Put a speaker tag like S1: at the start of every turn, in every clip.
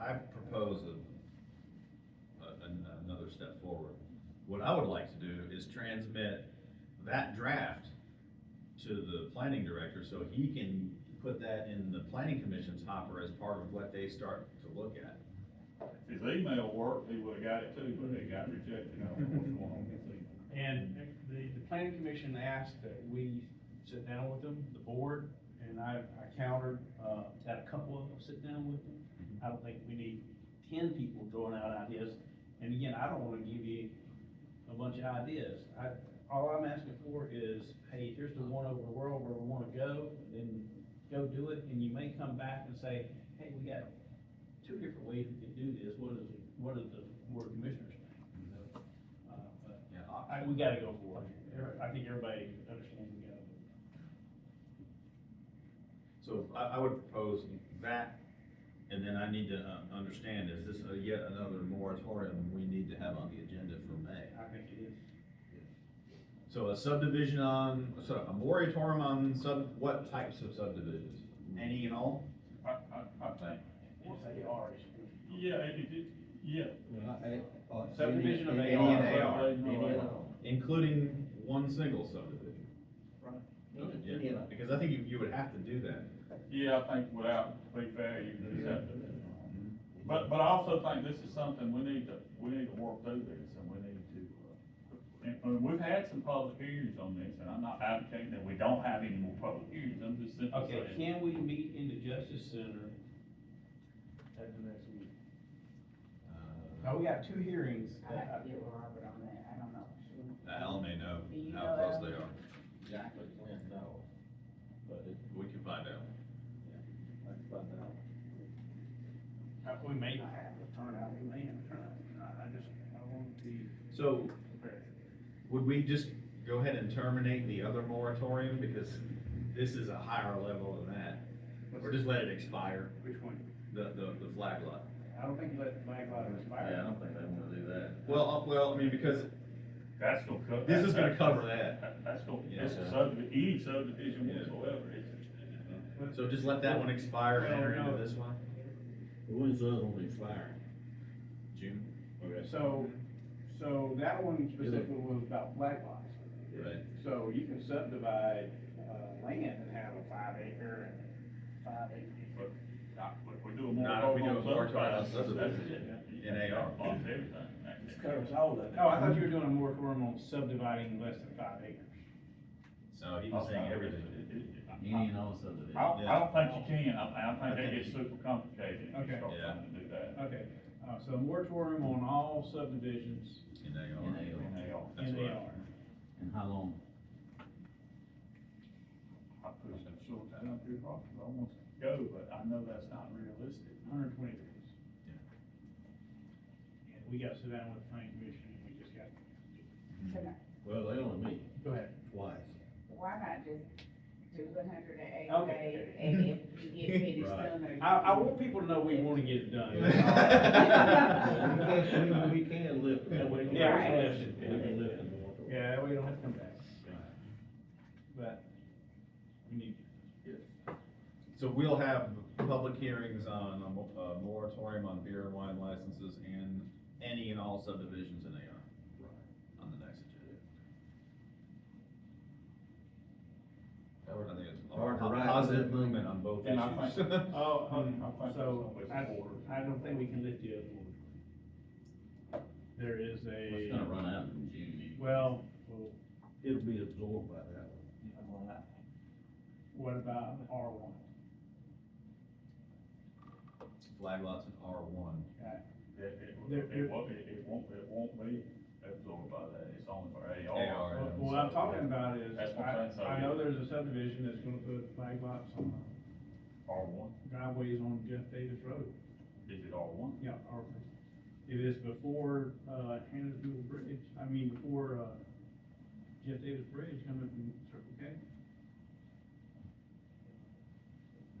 S1: I propose a, a, an- another step forward. What I would like to do is transmit that draft to the planning director, so he can put that in the planning commission's hopper as part of what they start to look at.
S2: If his email worked, he would've got it too, but it got rejected, I don't know what's going on with his email.
S3: And the, the planning commission asked that we sit down with them, the board, and I, I countered, uh, had a couple of them sit down with them. I don't think we need ten people throwing out ideas, and again, I don't wanna give you a bunch of ideas. I, all I'm asking for is, hey, here's the one over the world where we wanna go, then go do it, and you may come back and say, hey, we got two different ways we could do this, what is, what does the board of commissioners think? You know, uh, but
S1: Yeah.
S3: I, we gotta go for it. Every- I think everybody understands we gotta.
S1: So I, I would propose that, and then I need to uh, understand, is this a yet another moratorium we need to have on the agenda for May?
S3: I think it is.
S1: So a subdivision on, so a moratorium on sub, what types of subdivisions? Any and all?
S2: I, I, I think,
S3: It's a R issue.
S2: yeah, it, it, it- yeah.
S3: Subdivision of
S1: Any
S3: AR.
S1: and AR,
S2: Subdivision of
S4: Any and
S2: AR.
S4: all.
S1: including one single subdivision.
S4: Any and
S1: Yeah,
S4: all.
S1: because I think you, you would have to do that.
S2: Yeah, I think without, to be fair, you can just have to.
S1: Mm-hmm.
S2: But, but I also think this is something we need to, we need to work through this, and we need to, uh, and, and we've had some public hearings on this, and I'm not advocating that we don't have any more public hearings, I'm just simply
S3: Okay,
S2: saying.
S3: can we meet in the Justice Center at the next meeting?
S1: Uh,
S3: Now, we got two hearings.
S5: I have to get with Robert on that, I don't know.
S1: Uh, Al may know
S5: Do you
S1: how
S5: know
S1: close
S5: Al?
S1: they are.
S4: Exactly, when, no, but it,
S1: We can find out.
S4: that's about now.
S3: Uh, We may not have to turn out, we may have to turn out. I- I just, I want to be
S1: So
S3: prepared.
S1: would we just go ahead and terminate the other moratorium because this is a higher level than that? Or just let it expire,
S3: Which one?
S1: the, the, the flag lot?
S3: I don't think you let the flag lot expire.
S1: Yeah, I don't think they wanna do that. Well, uh, well, I mean, because
S2: That's gonna cover.
S1: this is gonna cover that.
S2: That- That's gonna,
S1: Yeah.
S2: this is subdivision, any subdivision
S1: Yeah.
S2: whatsoever, it's,
S1: So just let that one expire and enter into this one?
S4: When's the other one expire?
S1: June? Okay.
S3: So, so that one specifically was about flag lots.
S1: Right.
S3: So you can subdivide, uh, land and have a five acre and five acre.
S2: not, if we do a
S1: Not if we do
S2: moratorium
S1: a
S2: on
S1: moratorium on
S2: subdivision, that's it.
S1: In AR.
S2: Blocks everything.
S4: This covers all of it.
S3: Oh, I thought you were doing a moratorium on subdividing less than five acres.
S1: So he was saying everything.
S2: Any and all subdivision.
S3: Oh.
S2: I, I don't think you can, I, I think that
S1: Okay.
S2: gets super complicated if you
S3: Okay.
S2: start
S1: Yeah.
S2: trying to do that.
S3: Okay, uh, so moratorium on all subdivisions
S1: In
S6: In
S1: AR.
S6: AR.
S2: And they all,
S1: That's
S3: in the
S1: right.
S3: R.
S6: And how long?
S2: I push them short down up here, probably, I want to go, but I know that's not realistic.
S3: Hundred twenty days. And we got to sit down with the planning commission and we just got,
S5: Can I-
S4: Well, they only meet
S3: go ahead.
S4: twice.
S5: Why not just do a hundred and eighty
S3: Okay.
S5: days, and if you get finished
S4: Right.
S5: sooner.
S3: I, I want people to know we want to get it done.
S4: We can, we can lift.
S3: Yeah,
S4: them.
S3: we can lift it.
S4: We can lift them.
S3: Yeah, that way you don't have to come back. But we need,
S1: So we'll have public hearings on a mo- a moratorium on beer and wine licenses and any and all subdivisions in AR. On the next agenda. I think it's
S4: Hard to
S1: a
S4: write.
S1: positive movement on both
S2: And I
S1: issues.
S2: think,
S3: oh, um,
S2: I think
S3: so
S2: it's
S3: I,
S2: always order.
S3: I don't think we can lift the other one. There is
S6: It's
S3: a,
S6: gonna run out in June.
S3: well, well,
S4: It'll be absorbed by that one.
S3: what about R one?
S1: Flag lots in R one.
S2: It, it,
S3: There-
S2: it won't, it it won't, it won't be absorbed by that, it's only for AR.
S1: AR.
S3: Well, What I'm talking about is,
S2: That's what I'm
S3: I,
S2: saying.
S3: I know there's a subdivision that's gonna put flag lots on
S2: R one,
S3: driveways on Jeff Davis Road,
S2: is it R one?
S3: yeah, R one. It is before, uh, Hannahville Bridge, I mean, before, uh, Jeff Davis Bridge coming from Circle K.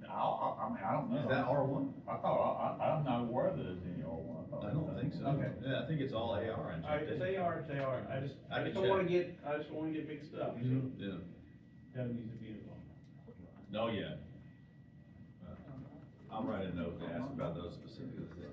S2: I, I, I mean, I don't
S3: Oh.
S2: know.
S1: Is that R one?
S2: I thought, I, I, I'm not aware that there's any R one.
S1: I don't think so.
S3: Okay.
S1: Yeah, I think it's all AR in
S3: I,
S1: Jeff
S3: they are, they are, I just,
S1: I
S3: I
S1: can Mm-hmm.
S3: just don't wanna get, I just don't wanna get mixed up, so
S1: Yeah,
S3: that needs to be involved.
S1: no, yeah. Uh, I'll write a note to ask about those specifics.